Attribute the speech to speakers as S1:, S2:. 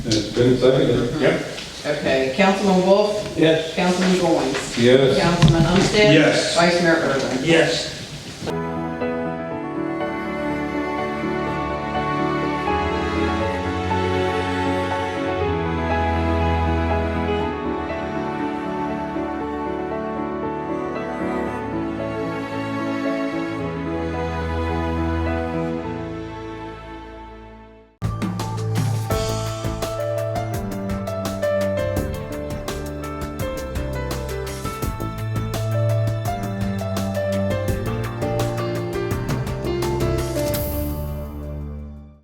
S1: It's been seconded.
S2: Yep.
S3: Okay, Councilman Wolf?
S2: Yes.
S3: Councilman Goins?
S1: Yes.
S3: Councilman Umstead?
S2: Yes.
S3: Vice Mayor Irvin?
S2: Yes.